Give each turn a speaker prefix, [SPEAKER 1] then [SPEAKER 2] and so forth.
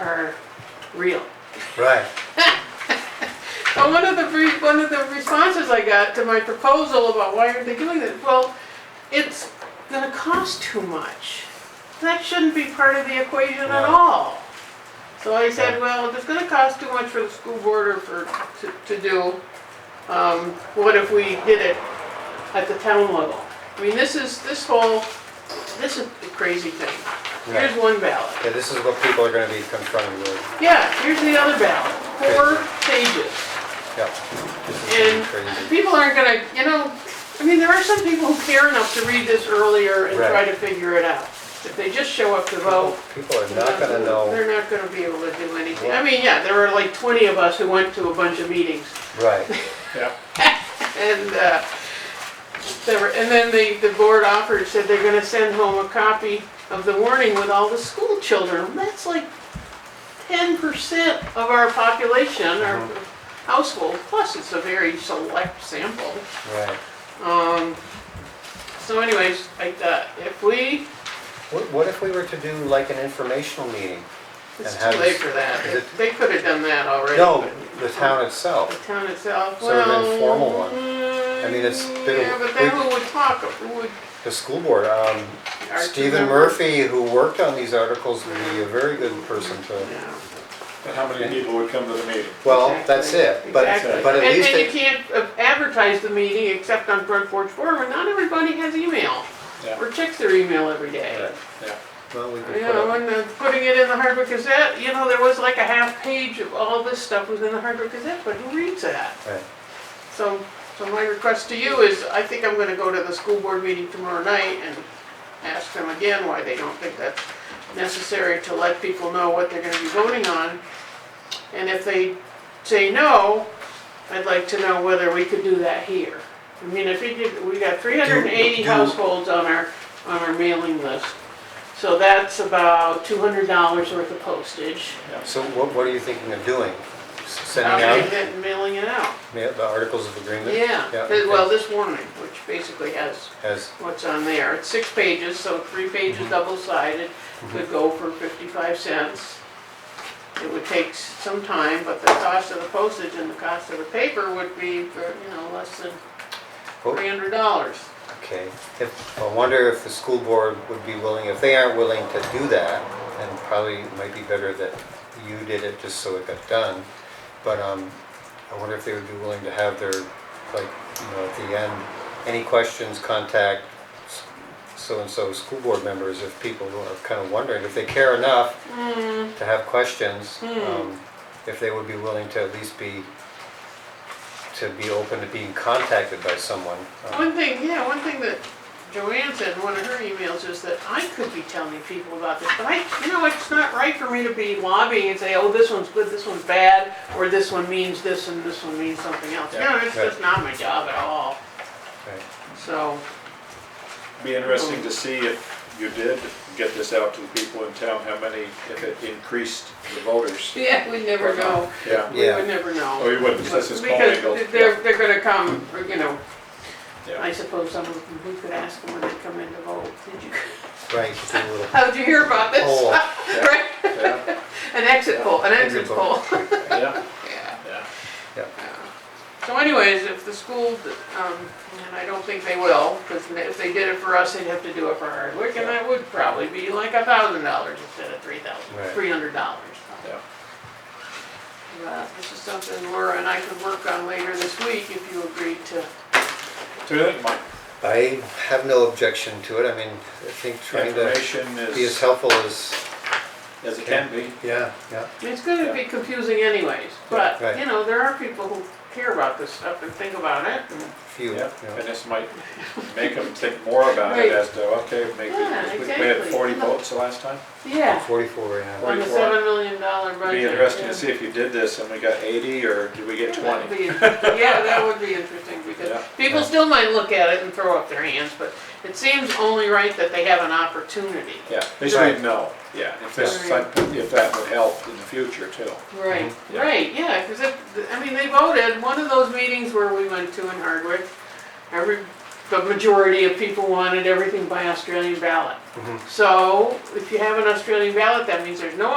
[SPEAKER 1] are real.
[SPEAKER 2] Right.
[SPEAKER 1] And one of the, re- one of the responses I got to my proposal about why aren't they doing this, well, it's gonna cost too much. That shouldn't be part of the equation at
[SPEAKER 2] Right.
[SPEAKER 1] all. So I said, well, if it's gonna cost too much for the school board or for, to, to do, um, what if we did it at the town level? I mean, this is, this whole, this is the crazy thing. Here's
[SPEAKER 2] Right.
[SPEAKER 1] one ballot.
[SPEAKER 2] Yeah, this is what people are gonna be confronted with.
[SPEAKER 1] Yeah, here's the other ballot, four pages.
[SPEAKER 2] Yep. This
[SPEAKER 1] And
[SPEAKER 2] is crazy.
[SPEAKER 1] people aren't gonna, you know, I mean, there are some people who care enough to read this earlier and try
[SPEAKER 2] Right.
[SPEAKER 1] to figure it out. If they just show up to vote.
[SPEAKER 2] People are not gonna know.
[SPEAKER 1] They're not gonna be able to do anything.
[SPEAKER 2] Yeah.
[SPEAKER 1] I mean, yeah, there were like twenty of us who went to a bunch of meetings
[SPEAKER 2] Right.
[SPEAKER 3] Yeah,
[SPEAKER 1] and, uh, there were, and then the, the board offered, said they're gonna send home a copy of the warning with all the school children. That's like ten percent of our population, our
[SPEAKER 2] Mm-hmm.
[SPEAKER 1] household, plus it's a very select sample.
[SPEAKER 2] Right.
[SPEAKER 1] Um, so anyways, like that, if we,
[SPEAKER 2] What, what if we were to do like an informational meeting?
[SPEAKER 1] it's
[SPEAKER 2] And how
[SPEAKER 1] too
[SPEAKER 2] does-
[SPEAKER 1] late for that,
[SPEAKER 2] is it-
[SPEAKER 1] they could have done that already.
[SPEAKER 2] No,
[SPEAKER 1] but
[SPEAKER 2] the town
[SPEAKER 1] The
[SPEAKER 2] itself.
[SPEAKER 1] town itself,
[SPEAKER 2] Sort of
[SPEAKER 1] well.
[SPEAKER 2] an informal one.
[SPEAKER 1] I
[SPEAKER 2] mean, it's been a-
[SPEAKER 1] Yeah, but then
[SPEAKER 2] we-
[SPEAKER 1] who would talk, who would?
[SPEAKER 2] The school board, um,
[SPEAKER 1] our two
[SPEAKER 2] Stephen
[SPEAKER 1] members-
[SPEAKER 2] Murphy, who worked on these articles, would be a very good person to,
[SPEAKER 1] Yeah.
[SPEAKER 3] and how many people would come to the meeting?
[SPEAKER 2] well, that's it. But,
[SPEAKER 1] Exactly.
[SPEAKER 2] but at
[SPEAKER 1] And-
[SPEAKER 2] least,
[SPEAKER 1] And you
[SPEAKER 2] it-
[SPEAKER 1] can't uh, advertise the meeting except on Front Porch Forum, and not everybody has email,
[SPEAKER 3] Yeah,
[SPEAKER 1] or checks their email every day.
[SPEAKER 3] yeah.
[SPEAKER 2] well, we could
[SPEAKER 1] You
[SPEAKER 2] put
[SPEAKER 1] know,
[SPEAKER 2] up,
[SPEAKER 1] and uh, putting it in the Hardwick Gazette, you know, there was like a half page of all this stuff was in the Hardwick Gazette, but who reads that?
[SPEAKER 2] right.
[SPEAKER 1] So, so my request to you is, I think I'm gonna go to the school board meeting tomorrow night and ask them again why they don't think that's necessary to let people know what they're gonna be voting on. And if they say no, I'd like to know whether we could do that here. I mean, if we did, we got three hundred and eighty
[SPEAKER 2] do-
[SPEAKER 1] households on our, on our mailing list. So that's about two hundred dollars worth of postage.
[SPEAKER 2] So what, what are you thinking of doing? S- Sending
[SPEAKER 1] Mailing
[SPEAKER 2] out
[SPEAKER 1] it- Mailing it out.
[SPEAKER 2] ma- the articles of agreement?
[SPEAKER 1] Um, Yeah,
[SPEAKER 2] okay.
[SPEAKER 1] th- well, this warning, which basically has
[SPEAKER 2] As,
[SPEAKER 1] what's on there. It's six pages, so three pages double-sided, would go for 55 cents. It would take s- some time, but the cost of the postage and the cost of the paper would be for, you know, less than
[SPEAKER 2] Oh.
[SPEAKER 1] $300.
[SPEAKER 2] Okay, if, I wonder if the school board would be willing, if they aren't willing to do that, then probably it might be better that you did it just so it got done. But, um, I wonder if they would be willing to have their, like, you know, at the end, any questions, contact s- so-and-so school board members, if people are kind of wondering, if they care enough to have questions, um, if they would be willing to at least be, to be open to being contacted by someone. um,
[SPEAKER 1] One thing, yeah, one thing that Joanne said in one of her emails is that I could be telling people about this, but I, you know, it's not right for me to be lobbying and say, oh, this one's good, this one's bad, or this one means this and this one means something else.
[SPEAKER 3] Yeah,
[SPEAKER 1] No, it's just not my job at all,
[SPEAKER 2] Right.
[SPEAKER 1] so.
[SPEAKER 3] Be interesting to see if you did get this out to the people in town, how many, if it increased the voters.
[SPEAKER 1] Yeah, we never know,
[SPEAKER 3] Yeah,
[SPEAKER 1] we
[SPEAKER 2] Yeah.
[SPEAKER 1] would never
[SPEAKER 3] oh,
[SPEAKER 1] know.
[SPEAKER 3] you wouldn't, this is Paul
[SPEAKER 1] Because
[SPEAKER 3] Engel.
[SPEAKER 1] they're, they're gonna come, or, you know, I
[SPEAKER 3] Yeah,
[SPEAKER 1] suppose some of them, we could ask them when they come in to vote, did you,
[SPEAKER 2] Right, just a little
[SPEAKER 1] how'd you hear about this?
[SPEAKER 2] poll.
[SPEAKER 1] Right,
[SPEAKER 3] yeah,
[SPEAKER 1] an exit poll, an exit
[SPEAKER 2] Exit
[SPEAKER 1] poll,
[SPEAKER 2] poll.
[SPEAKER 3] yeah,
[SPEAKER 1] yeah.
[SPEAKER 3] yeah.
[SPEAKER 1] So anyways, if the school, um, and I don't think they will, because if they did it for us, they'd have to do it for Hardwick, and that would probably be like a thousand dollars instead of three thousand,
[SPEAKER 2] Right.
[SPEAKER 1] three hundred dollars.
[SPEAKER 3] Yeah.
[SPEAKER 1] But this is something Laura and I could work on later this week if you agreed to.
[SPEAKER 3] So you think, Mike,
[SPEAKER 2] I have no objection to it, I mean, I think trying to
[SPEAKER 3] information
[SPEAKER 2] be as
[SPEAKER 3] is,
[SPEAKER 2] helpful as,
[SPEAKER 3] as it can be,
[SPEAKER 2] yeah, yeah,
[SPEAKER 1] It's gonna be confusing anyways, but,
[SPEAKER 2] Right.
[SPEAKER 1] you know, there are people who care about this stuff and think about it. and-
[SPEAKER 2] few,
[SPEAKER 3] yeah,
[SPEAKER 2] yeah.
[SPEAKER 3] and this might make them think more about it
[SPEAKER 1] Right.
[SPEAKER 3] as to, okay, maybe,
[SPEAKER 1] Yeah,
[SPEAKER 3] we we had
[SPEAKER 1] exactly.
[SPEAKER 3] forty votes the last time.
[SPEAKER 1] Yeah,
[SPEAKER 2] Forty-four, yeah.
[SPEAKER 1] on the
[SPEAKER 3] Forty-four.
[SPEAKER 1] seven million dollar budget.
[SPEAKER 3] Be interesting
[SPEAKER 1] yeah.
[SPEAKER 3] to see if you did this and we got eighty, or did we get
[SPEAKER 1] Yeah, that'd
[SPEAKER 3] twenty?
[SPEAKER 1] be- Yeah, that would be interesting,
[SPEAKER 3] Yeah.
[SPEAKER 1] because people still might look at it and throw up their hands, but it seems only right that they have an opportunity.
[SPEAKER 3] Yeah, they should
[SPEAKER 2] Right.
[SPEAKER 3] know, yeah, if this,
[SPEAKER 1] Right.
[SPEAKER 3] if that would help in the future too.
[SPEAKER 1] Right,
[SPEAKER 3] Yeah.
[SPEAKER 1] right, yeah, because it, I mean, they voted, one of those meetings where we went to in Hardwick, every, the majority of people wanted everything by Australian ballot.
[SPEAKER 2] Mhm.
[SPEAKER 1] So if you have an Australian ballot, that means there's no